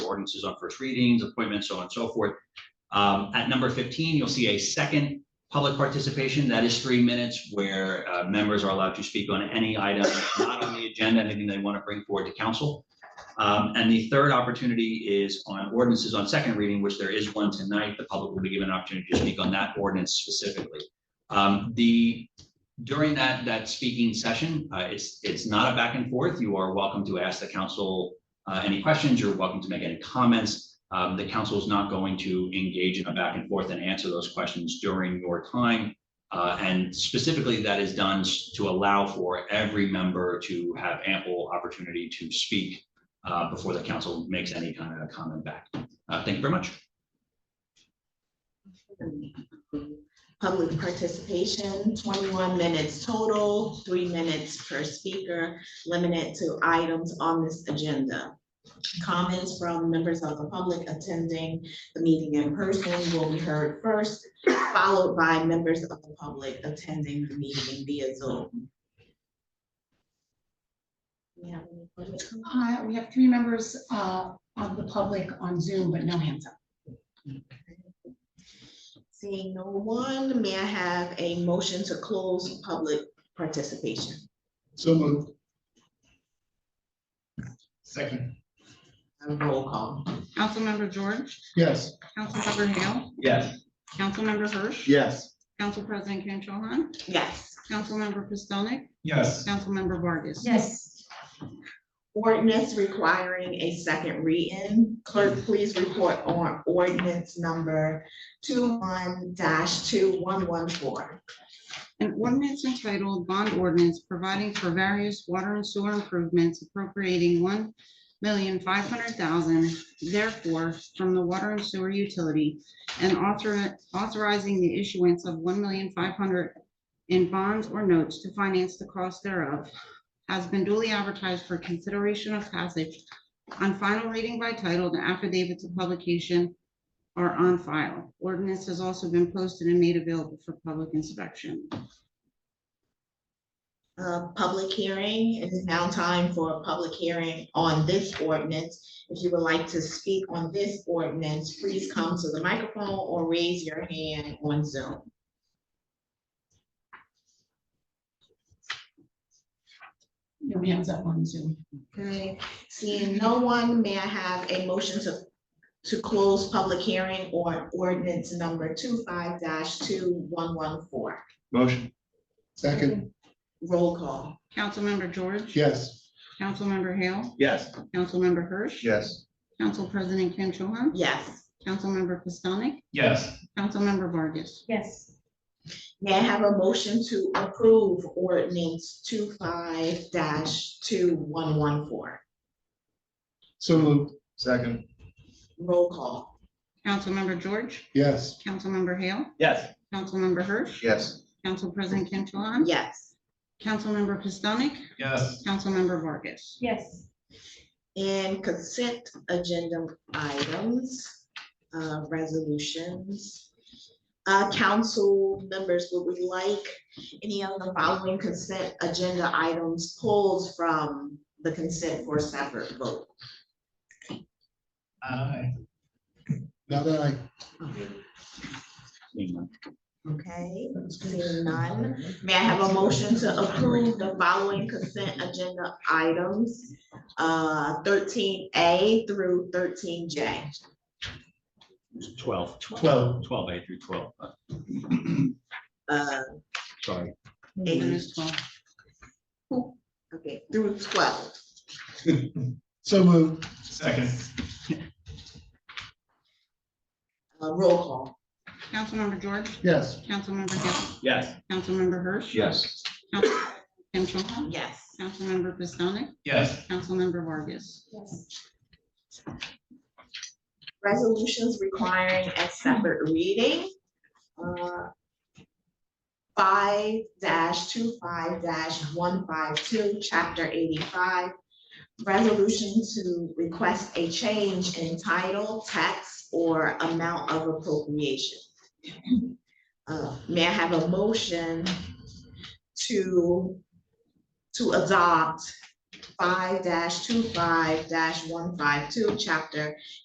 ordinances on first readings, appointments, so on and so forth. Um, At number 15, you'll see a second public participation. That is three minutes where uh, members are allowed to speak on any item not on the agenda, anything they want to bring forward to council. Um, And the third opportunity is on ordinances on second reading, which there is one tonight. The public will be given an opportunity to speak on that ordinance specifically. Um, The, during that, that speaking session, uh, it's, it's not a back and forth. You are welcome to ask the council uh, any questions. You're welcome to make any comments. Um, The council is not going to engage in a back and forth and answer those questions during your time. Uh, And specifically, that is done s- to allow for every member to have ample opportunity to speak uh, before the council makes any kind of comment back. Uh, Thank you very much. Public participation, twenty-one minutes total, three minutes per speaker, limited to items on this agenda. Comments from members of the public attending the meeting in person will be heard first, followed by members of the public attending the meeting via Zoom. Yeah. Uh, we have three members, uh, of the public on Zoom, but no hands up. Seeing no one, may I have a motion to close public participation? So moved. Second. A roll call. Councilmember George, Yes. Councilmember Hale, Yes. Councilmember Hirsch. Yes. Council President Kim Cho Han, Yes. Councilmember Pistonik, Yes. Councilmember Vargas. Yes. Ordinance requiring a second reading. Clerk, please report on ordinance number two two one one four. An ordinance entitled Bond Ordinance Providing for Various Water and Sewer Improvements Appropriating One Million Five Hundred Thousand, therefore, from the Water and Sewer Utility and author- authorizing the issuance of one million five hundred in bonds or notes to finance the cost thereof has been duly advertised for consideration of passage on final reading by title, the affidavits of publication are on file. Ordinance has also been posted and made available for public inspection. Uh, public hearing, it is now time for a public hearing on this ordinance. If you would like to speak on this ordinance, please come to the microphone or raise your hand on Zoom. No hands up on Zoom. Okay, seeing no one, may I have a motion to, to close public hearing on ordinance number two two one one four? Motion. Second. Roll call. Councilmember George. Yes. Councilmember Hale. Yes. Councilmember Hirsch. Yes. Council President Kim Cho Han. Yes. Councilmember Pistonik. Yes. Councilmember Vargas. Yes. May I have a motion to approve ordinance two two one one four? So moved. Second. Roll call. Councilmember George. Yes. Councilmember Hale. Yes. Councilmember Hirsch. Yes. Council President Kim Cho Han. Yes. Councilmember Pistonik. Yes. Councilmember Vargas. Yes. And consent agenda items, uh, resolutions. Uh, Council members, would we like any of the following consent agenda items pulled from the consent for separate vote? Aye. Now that I. Okay, seeing none. May I have a motion to approve the following consent agenda items, uh, thirteen A through thirteen J? 12. Twelve. 12A through 12. Uh, Uh, Sorry. Minus 12. okay, through twelve. So moved. Second. Uh, roll call. Councilmember George. Yes. Councilmember Hale. Yes. Councilmember Hirsch. Yes. Council Kim Cho Han. Yes. Councilmember Pistonik. Yes. Councilmember Vargas. Yes. Resolutions requiring a separate reading. Uh, Five dash two five dash one five two, chapter eighty-five. Resolution to request a change in title, tax, or amount of appropriation. Uh, May I have a motion to, to adopt five dash two five dash one five two, chapter